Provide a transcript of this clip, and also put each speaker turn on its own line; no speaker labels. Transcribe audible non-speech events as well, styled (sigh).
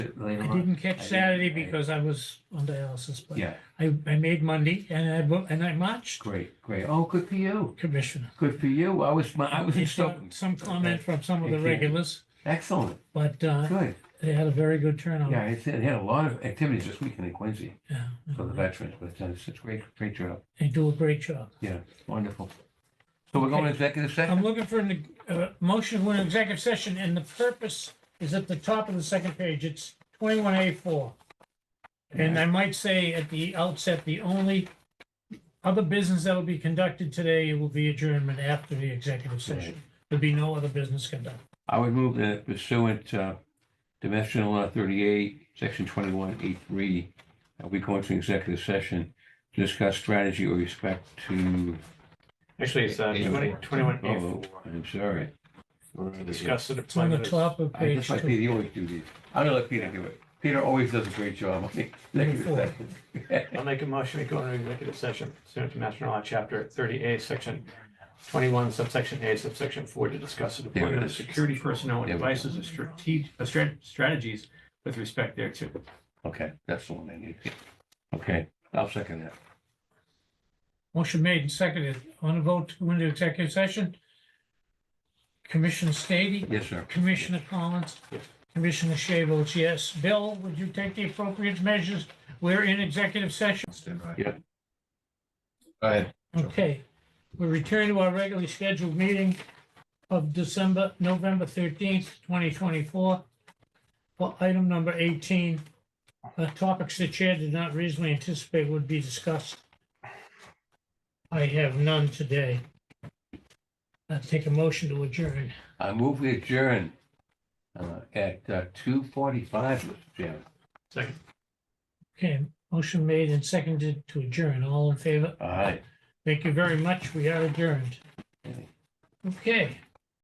later
I
on.
didn't catch
didn't-
Saturday
I-
because I was on dialysis, but
Yeah,
I, I made Monday and I, bo- and I marched,
great, great. Oh, good for you.
Commissioner.
Good for you. I was, I was in
It's got
Stoughton.
Some comment from some of the
Okay.
regulars,
Excellent.
but uh,
Good.
they had a very good turnout.
Yeah, it's, it had a lot of activities this weekend in Quincy
Yeah,
for the
yeah.
veterans, but uh, it's such a great, great job.
They do a great job.
Wonderful. So we're going to executive
I'm
session?
looking for an uh, motion to go into executive session, and the purpose is at the top of the second page. It's 21A4. And I might say at the outset, the only other business that will be conducted today will be adjournment after the executive session. There'll be no other business conducted.
I would move that pursuant uh, to Master General Law 38, Section 21E3, uh, we go into executive session to discuss strategy with respect to,
Actually, it's uh,
Eight
twenty,
four.
twenty-one A
oh,
four.
I'm sorry.
Discuss the
It's on the
deployment. of-
top of
I
page
just like
two.
Peter, you always do these. I'm gonna let Peter do it. Peter always does a great job. (laughs) on the executive session.
I'll make a motion, we go into executive session pursuant to Master Law, Chapter thirty A, Section twenty-one, subsection A, subsection four, to discuss the
There it
deployment of
is.
security personnel and
There we go.
devices and strate- uh, strat- strategies with respect thereto.
Okay, that's the one I need. Okay, I'll second that.
Motion made and seconded. On a vote to go into executive session? Commissioner Stady?
Yes, sir.
Commissioner Collins?
Yes.
Commissioner Shea votes yes. Bill, would you take the appropriate measures? We're in executive session.
Yeah.
Go ahead.
Okay. We return to our regularly scheduled meeting of December, November thirteenth, twenty twenty-four. For item number eighteen, uh, topics the chair did not reasonably anticipate would be discussed. I have none today. i take a motion to adjourn.
I move we adjourn uh, at two forty-five, Mr. Chairman.
Second,
Okay, motion made and seconded to adjourn. All in favor?
All right.
Thank you very much. We are adjourned. Okay.